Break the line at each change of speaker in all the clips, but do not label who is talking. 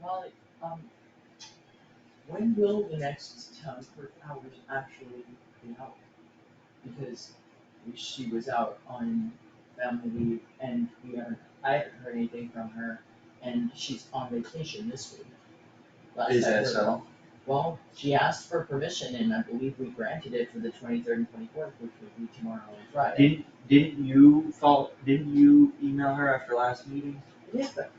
Molly, um, when will the next town clerk hours actually be out? Because she was out on family leave and we haven't, I haven't heard anything from her and she's on vacation this week. Last
Is
I
that
heard.
so?
Well, she asked for permission and I believe we granted it for the twenty-third and twenty-fourth, which would be tomorrow and Friday.
Didn't, didn't you follow, didn't you email her after last meeting?
Yeah, but.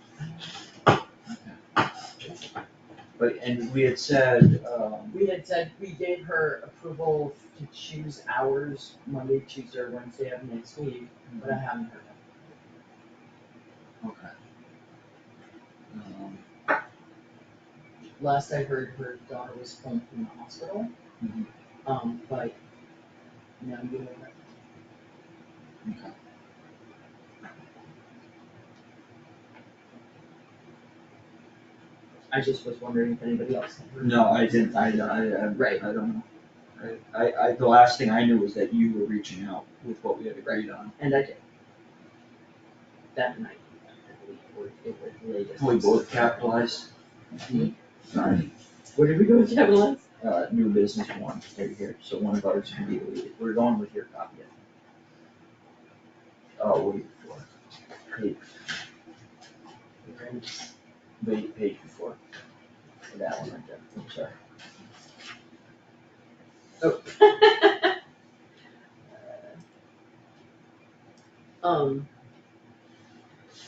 But, and we had said, um,
We had said, we gave her approval to choose hours, Monday, Tuesday, or Wednesday of next week, but I haven't heard it.
okay. Um,
Last I heard, her daughter was home from the hospital.
Mhm.
Um, but, no, you know,
okay.
I just was wondering if anybody else had heard.
No, I didn't, I, I, I,
Right.
I don't know. I- I, I, the last thing I knew was that you were reaching out with what we had agreed on.
And I did. That night, I believe, or it was latest.
We both capitalized.
Mhm.
Sorry,
Where did we go with Kevin?
uh, new business one, right here, so one of ours can be deleted, we're going with your copy. Oh, wait, before, page, wait, page before, that one right there, I'm sorry.
Um.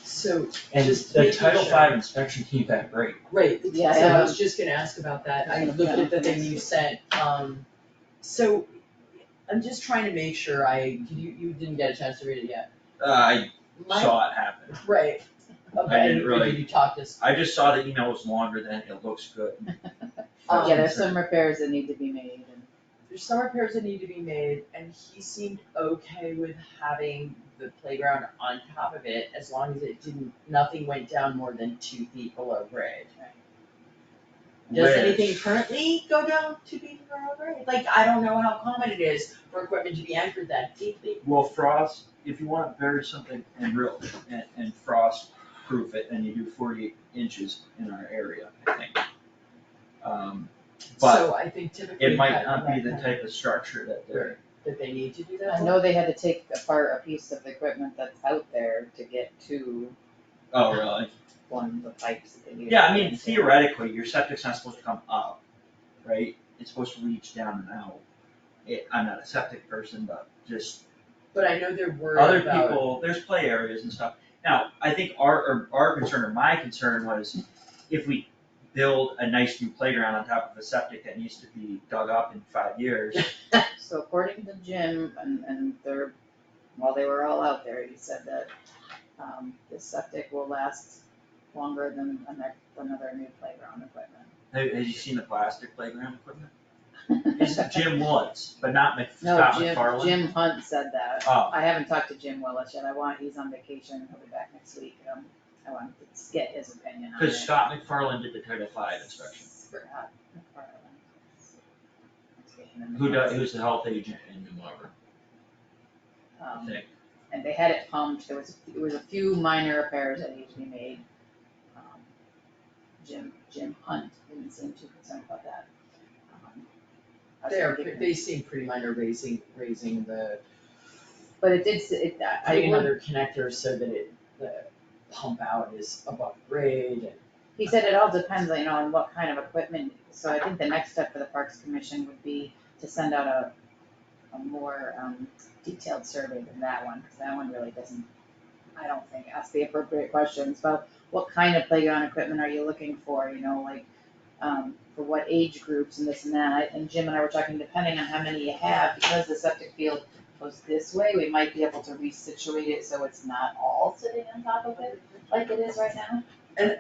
So,
And
Just
the
making
Title
sure.
Five inspection came back great,
Right, so
Yeah,
I
yeah.
was just gonna ask about that, I
Yeah.
looked at the thing you sent, um, so, I'm just trying to make sure I, you, you didn't get a chance to read it yet.
uh, I
My,
saw it happen,
right,
I
okay,
didn't really-
did you talk this,
I just saw the email was longer than it looks good.
Um,
Oh, Yeah, there's some repairs that need to be made and.
there's some repairs that need to be made, and he seemed okay with having the playground on top of it, as long as it didn't, nothing went down more than two feet below grade. Does anything
Which-
currently go down to be below grade? Like, I don't know how common it is for equipment to be anchored that deeply.
Well, frost, if you wanna bury something and real, and, and frost proof it, then you do forty inches in our area, I think. Um, but
So I think typically.
it might
that-
not be the
that-
type of structure that they're,
That they need to do
I
that.
know they had to take apart a piece of the equipment that's out there to get to
oh, really?
one of the pipes that they needed.
Yeah, I mean theoretically, your septic's not supposed to come up, right? It's supposed to reach down and out. It, I'm not a septic person, but just
But I know they're
other
worried about,
people, there's play areas and stuff. Now, I think our, or our concern, or my concern was if we build a nice new playground on top of a septic that needs to be dug up in five years.
So according to Jim and, and their, while they were all out there, he said that, um, this septic will last longer than another, another new playground equipment.
Have, have you seen the plastic playground equipment? It's Jim Woods, but not Mc,
No,
Scott
Jim,
McFarland.
Jim Hunt said that.
Oh,
I haven't talked to Jim Willis yet, I want, he's on vacation, he'll be back next week, um, I want to get his opinion on it.
cause Scott McFarland did the Title Five inspection.
Scott McFarland.
Who does, who's the health agent in New Marlboro, I
Um,
think?
and they had it pumped, there was, it was a few minor repairs that needed to be made. Um, Jim, Jim Hunt didn't seem too concerned about that. Um, I was
they're,
thinking-
they seem pretty minor raising, raising the,
But it did, s- it, I, I
putting
would,
another connector so that it, the pump out is above grade and.
he said it all depends, you know, on what kind of equipment, so I think the next step for the Parks Commission would be to send out a, a more, um, detailed survey than that one, cause that one really doesn't, I don't think, ask the appropriate questions about what kind of playground equipment are you looking for, you know, like, um, for what age groups and this and that, and Jim and I were talking, depending on how many you have, because the septic field goes this way, we might be able to resituate it so it's not all sitting on top of it, like it is right now.